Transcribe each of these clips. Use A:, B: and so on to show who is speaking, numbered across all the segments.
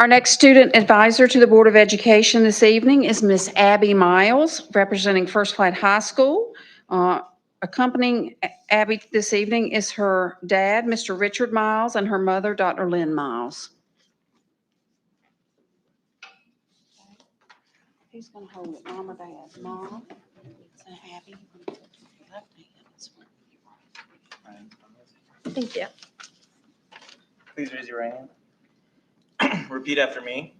A: Our next student advisor to the Board of Education this evening is Miss Abby Miles, representing First Flight High School. Uh, Accompanying Abby this evening is her dad, Mr. Richard Miles, and her mother, Dr. Lynn Miles. Who's going to hold it, mom or dad? Mom? So Abby, you can put your left hand this way.
B: Thank you.
C: Please raise your right hand. Repeat after me.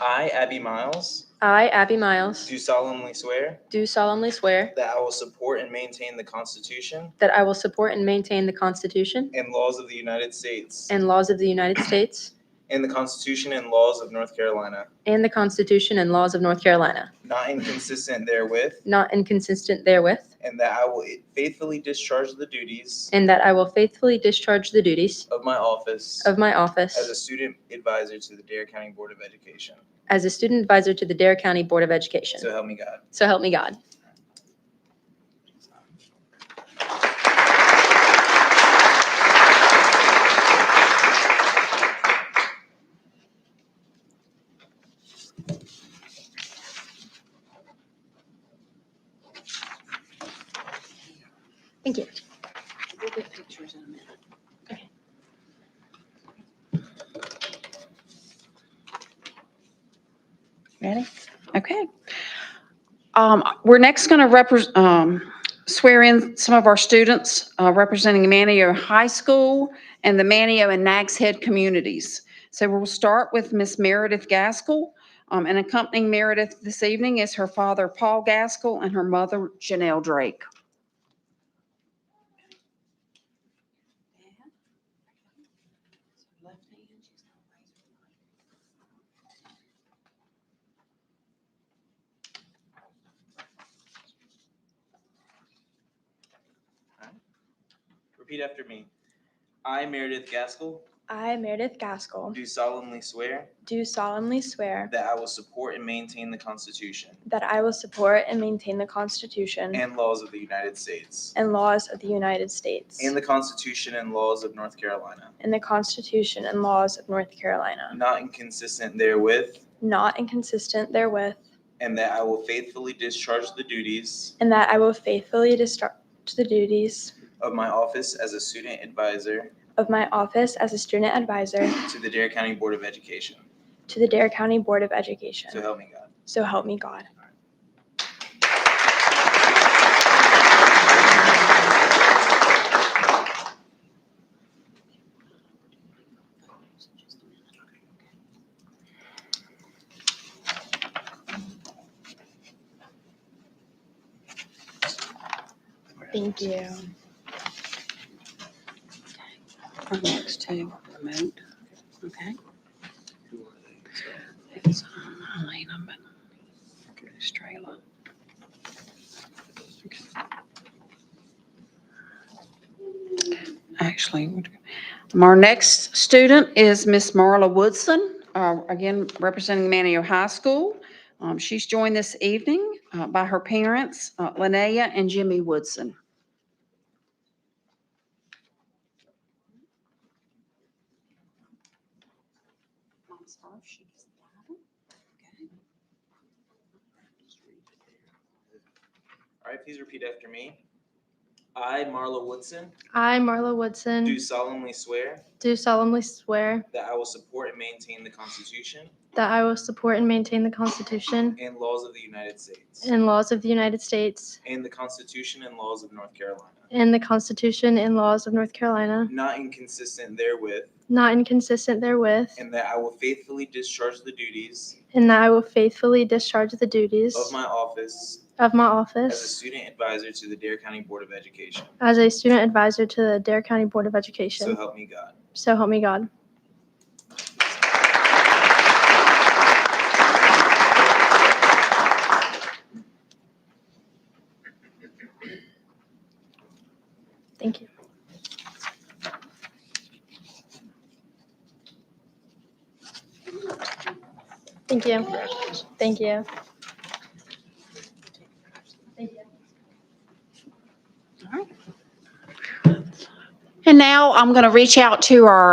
C: I, Abby Miles,
B: I, Abby Miles,
C: do solemnly swear
B: do solemnly swear
C: that I will support and maintain the Constitution
B: that I will support and maintain the Constitution
C: and laws of the United States
B: and laws of the United States
C: and the Constitution and laws of North Carolina,
B: and the Constitution and laws of North Carolina,
C: not inconsistent therewith,
B: not inconsistent therewith,
C: and that I will faithfully discharge the duties
B: and that I will faithfully discharge the duties
C: of my office
B: of my
C: as a
B: office
C: student advisor to the Dare County Board of Education.
B: as a student advisor to the Dare County Board of Education.
C: So help me God.
B: So help me God. Thank you.
A: We'll get pictures in a minute. Ready? Okay. Um, We're next going to swear in some of our students uh, representing Manio High School and the Manio and Nags Head communities. So we'll start with Miss Meredith Gaskell. Um, And accompanying Meredith this evening is her father, Paul Gaskell, and her mother, Janelle Drake.
C: Repeat after me. I, Meredith Gaskell,
D: I, Meredith Gaskell,
C: do solemnly swear
D: do solemnly swear
C: That I will support and maintain the Constitution
D: that I will support and maintain the Constitution
C: and laws of the United States
D: and laws of the United States
C: and the Constitution and laws of North Carolina,
D: and the Constitution and laws of North Carolina,
C: not inconsistent therewith,
D: not inconsistent therewith,
C: and that I will faithfully discharge the duties
D: and that I will faithfully discharge the duties
C: of my office as a student advisor
D: of my office as a student advisor
C: to the Dare County Board of Education.
D: to the Dare County Board of
C: So
D: Education.
C: help me God.
D: So help me God. Thank you.
A: Our next two remote, okay? It's um, Elena, but it's Strela. Actually, we're- our next student is Miss Marla Woodson, uh, again, representing Manio High School. Um, She's joined this evening uh, by her parents, uh, Linnea and Jimmy Woodson. Mom's first, she gets the Bible. Okay.
C: All right, please repeat after me. I, Marla Woodson,
E: I, Marla Woodson,
C: do solemnly swear
E: do solemnly swear
C: that I will support and maintain the Constitution
E: that I will support and maintain the Constitution
C: and laws of the United States
E: and laws of the United States
C: and the Constitution and laws of North Carolina.
E: and the Constitution and laws of North Carolina,
C: not inconsistent therewith,
E: not inconsistent therewith,
C: and that I will faithfully discharge the duties
E: and that I will faithfully discharge the duties
C: of my office
E: of my
C: as a
E: office
C: student advisor to the Dare County Board of Education.
E: as a student advisor to the Dare County Board of
C: So
E: Education.
C: help me God.
E: So help me God. Thank you. Thank you. Thank you. Thank you.
A: And now I'm going to reach out to our